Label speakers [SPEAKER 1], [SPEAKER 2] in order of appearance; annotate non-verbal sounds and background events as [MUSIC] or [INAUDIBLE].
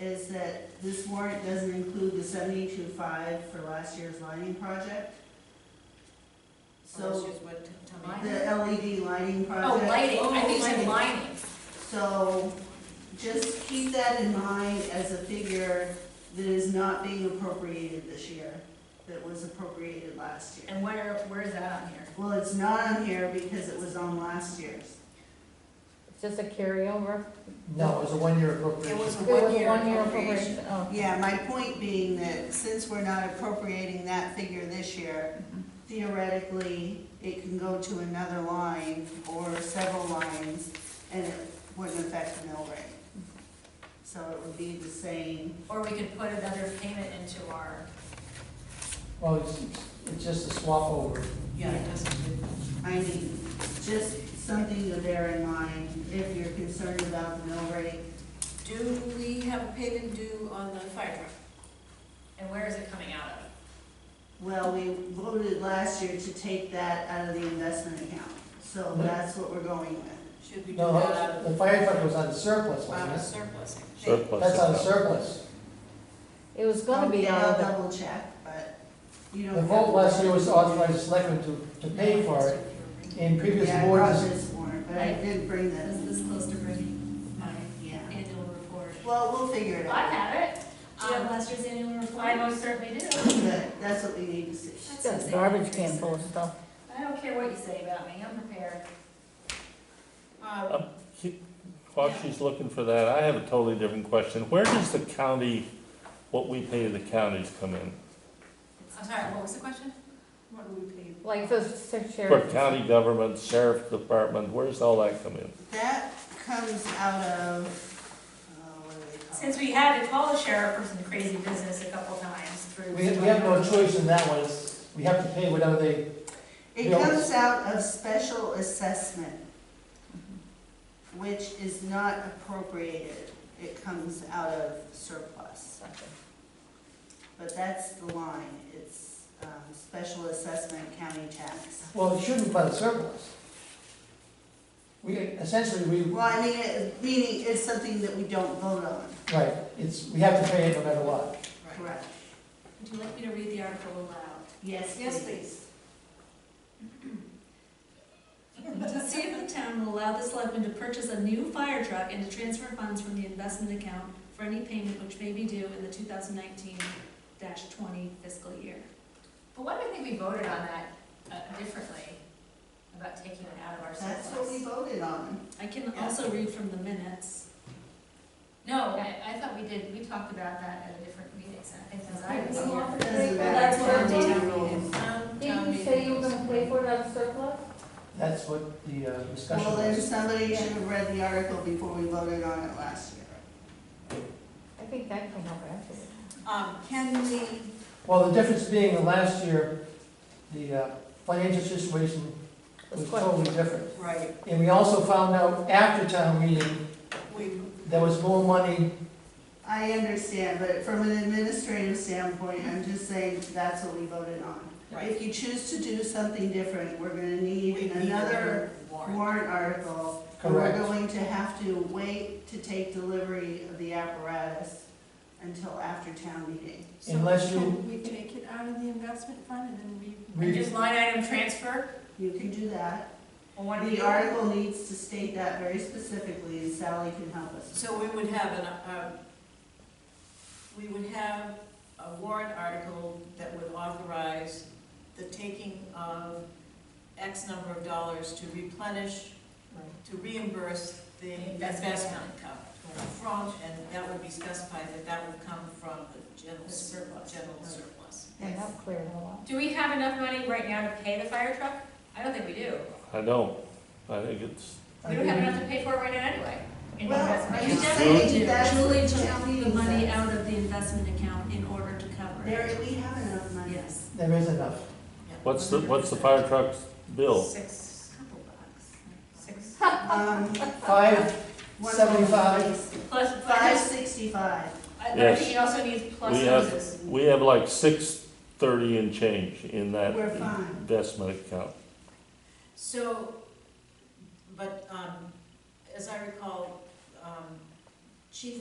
[SPEAKER 1] is that this warrant doesn't include the seventy-two five for last year's lighting project.
[SPEAKER 2] Last
[SPEAKER 1] So,
[SPEAKER 2] year's what, tell me?
[SPEAKER 1] the LED lighting
[SPEAKER 2] Oh,
[SPEAKER 1] project.
[SPEAKER 2] lighting, I think you
[SPEAKER 1] Lighting.
[SPEAKER 2] said lining.
[SPEAKER 1] So just keep that in mind as a figure that is not being appropriated this year, that was appropriated last year.
[SPEAKER 2] And where, where is that on here?
[SPEAKER 1] Well, it's not on here because it was on last year's.
[SPEAKER 3] It's just a carryover?
[SPEAKER 4] No, it was a one-year appropriation.
[SPEAKER 2] It was a
[SPEAKER 3] It was
[SPEAKER 2] one-year
[SPEAKER 3] one-year
[SPEAKER 2] appropriation.
[SPEAKER 3] Oh.
[SPEAKER 1] Yeah, my point being that since we're not appropriating that figure this year, theoretically, it can go to another line or several lines, and it wouldn't affect the mill rate. So it would be the same.
[SPEAKER 2] Or we could put another payment into our.
[SPEAKER 4] Well, Oh, it's, it's just a swap over.
[SPEAKER 2] Yeah, it doesn't.
[SPEAKER 1] I mean, just something to bear in mind if you're concerned about the mill rate.
[SPEAKER 2] Do we have a payment due on the fire truck? And where is it coming out of?
[SPEAKER 1] Well, we voted last year to take that out of the investment account, so that's what we're going with.
[SPEAKER 2] Should we do that
[SPEAKER 4] No, the fire truck was on surplus,
[SPEAKER 2] out
[SPEAKER 4] wasn't
[SPEAKER 2] of
[SPEAKER 4] it?
[SPEAKER 2] surplus? I think?
[SPEAKER 5] Surplus.
[SPEAKER 4] That's on
[SPEAKER 5] account.
[SPEAKER 4] surplus.
[SPEAKER 3] It was gonna be
[SPEAKER 1] Okay,
[SPEAKER 3] out of
[SPEAKER 1] I'll
[SPEAKER 3] the
[SPEAKER 1] double check, but you don't.
[SPEAKER 4] The
[SPEAKER 1] have
[SPEAKER 4] vote
[SPEAKER 1] to-
[SPEAKER 4] last year was to authorize the selectmen to, to pay for it. In previous
[SPEAKER 1] Yeah, I brought
[SPEAKER 4] boards,
[SPEAKER 1] this warrant, but I didn't bring
[SPEAKER 2] Is
[SPEAKER 1] this.
[SPEAKER 2] this close to bringing my
[SPEAKER 1] Yeah.
[SPEAKER 2] annual report?
[SPEAKER 1] Well, we'll figure it
[SPEAKER 6] I
[SPEAKER 1] out.
[SPEAKER 6] have it.
[SPEAKER 2] Do you have
[SPEAKER 6] Um,
[SPEAKER 2] last year's annual report?
[SPEAKER 6] I most certainly do.
[SPEAKER 1] Good, that's what we need to see.
[SPEAKER 2] That's
[SPEAKER 3] got a
[SPEAKER 2] insane.
[SPEAKER 3] garbage can full of stuff.
[SPEAKER 6] I don't care what you say about me, I'm prepared.
[SPEAKER 2] Um,
[SPEAKER 5] While she's looking for that, I have a totally different question. Where does the county, what we pay the counties come in?
[SPEAKER 2] I'm sorry, what was the question?
[SPEAKER 6] What do we pay?
[SPEAKER 3] Like the
[SPEAKER 5] For
[SPEAKER 3] sheriff,
[SPEAKER 5] county government, sheriff department, where's all that come in?
[SPEAKER 1] That comes out of, uh, what do they call it?
[SPEAKER 6] Since we had to call the sheriff for some crazy business a couple times through.
[SPEAKER 4] we, we have no choice in that one. It's- We have to pay whatever they,
[SPEAKER 1] It
[SPEAKER 4] Bills.
[SPEAKER 1] comes out of special assessment, which is not appropriated. It comes out of surplus, but that's the line. It's um, special assessment county tax.
[SPEAKER 4] well, it shouldn't be on surplus. We, essentially, we,
[SPEAKER 1] Well, I mean, it- meaning it's something that we don't vote on,
[SPEAKER 4] right, it's, we have to pay it no matter what.
[SPEAKER 1] correct?
[SPEAKER 6] Would you like me to read the article aloud?
[SPEAKER 1] Yes,
[SPEAKER 2] Yes,
[SPEAKER 1] please.
[SPEAKER 2] please.
[SPEAKER 6] To see if the town will allow the selectmen to purchase a new fire truck and to transfer funds from the investment account for any payment which may be due in the two thousand nineteen twenty fiscal year.
[SPEAKER 2] But why do I think we voted on that uh, differently, about taking it out of our surplus?
[SPEAKER 1] That's what we voted on.
[SPEAKER 6] I can also read from the minutes.
[SPEAKER 2] No, I, I thought we did, we talked about that at a different meeting, so I think that's I was
[SPEAKER 3] You
[SPEAKER 2] here.
[SPEAKER 3] want-
[SPEAKER 1] Doesn't
[SPEAKER 3] Well,
[SPEAKER 1] matter.
[SPEAKER 3] that's what
[SPEAKER 1] Town
[SPEAKER 3] it
[SPEAKER 1] meeting.
[SPEAKER 3] didn't you say you were gonna pay for it out of surplus?
[SPEAKER 4] That's what the uh, discussion
[SPEAKER 1] Well, then
[SPEAKER 4] was.
[SPEAKER 1] somebody should have read the article before we voted on it last year.
[SPEAKER 3] I think that came up afterwards.
[SPEAKER 2] Um, can we?
[SPEAKER 4] Well, the difference being that last year, the uh, financial situation was
[SPEAKER 3] Was quite-
[SPEAKER 4] totally different.
[SPEAKER 2] Right.
[SPEAKER 4] And we also found out after town meeting, there was more money,
[SPEAKER 1] I understand, but from an administrative standpoint, I'm just saying that's what we voted on. If you choose to do something different, we're gonna need another warrant article. and We're
[SPEAKER 4] Correct.
[SPEAKER 1] going to have to wait to take delivery of the apparatus until after town meeting.
[SPEAKER 4] unless you,
[SPEAKER 7] Can we take it out of the investment fund and then we,
[SPEAKER 2] And
[SPEAKER 4] we,
[SPEAKER 2] just line item transfer?
[SPEAKER 1] You can do that.
[SPEAKER 2] Well, why don't we-
[SPEAKER 1] The article needs to state that very specifically, and Sally can help us.
[SPEAKER 2] So we would have an, uh, we would have a warrant article that would authorize the taking of X number of dollars to replenish, to reimburse the investment account from, and that would be specified that that would come from the general surplus, general surplus.
[SPEAKER 3] And that cleared it all
[SPEAKER 6] Do we have enough money right now to pay the fire truck? I don't think we do.
[SPEAKER 5] I don't, I think it's,
[SPEAKER 4] I
[SPEAKER 6] We don't have
[SPEAKER 4] think
[SPEAKER 6] enough to pay for it right now anyway. in
[SPEAKER 1] Well,
[SPEAKER 6] investment.
[SPEAKER 1] I
[SPEAKER 6] We
[SPEAKER 1] just
[SPEAKER 6] definitely
[SPEAKER 1] think
[SPEAKER 6] do.
[SPEAKER 1] that's what
[SPEAKER 6] Julie
[SPEAKER 1] town
[SPEAKER 6] took
[SPEAKER 1] meeting
[SPEAKER 6] the money
[SPEAKER 1] says.
[SPEAKER 6] out of the investment account in order to cover it.
[SPEAKER 1] There, we have enough money.
[SPEAKER 6] Yes.
[SPEAKER 4] there is enough.
[SPEAKER 5] what's the, what's the fire truck's bill?
[SPEAKER 6] Six, couple bucks, six.
[SPEAKER 1] [LAUGHS] Um,
[SPEAKER 4] Five,
[SPEAKER 1] one
[SPEAKER 4] Seventy-five.
[SPEAKER 1] place,
[SPEAKER 6] Plus,
[SPEAKER 1] Five sixty-five.
[SPEAKER 6] I, I
[SPEAKER 5] Yes.
[SPEAKER 6] think it also needs
[SPEAKER 5] We
[SPEAKER 6] pluses.
[SPEAKER 5] have, we have like six thirty and change in that
[SPEAKER 1] We're fine.
[SPEAKER 5] investment account.
[SPEAKER 2] So, but, um, as I recall, um,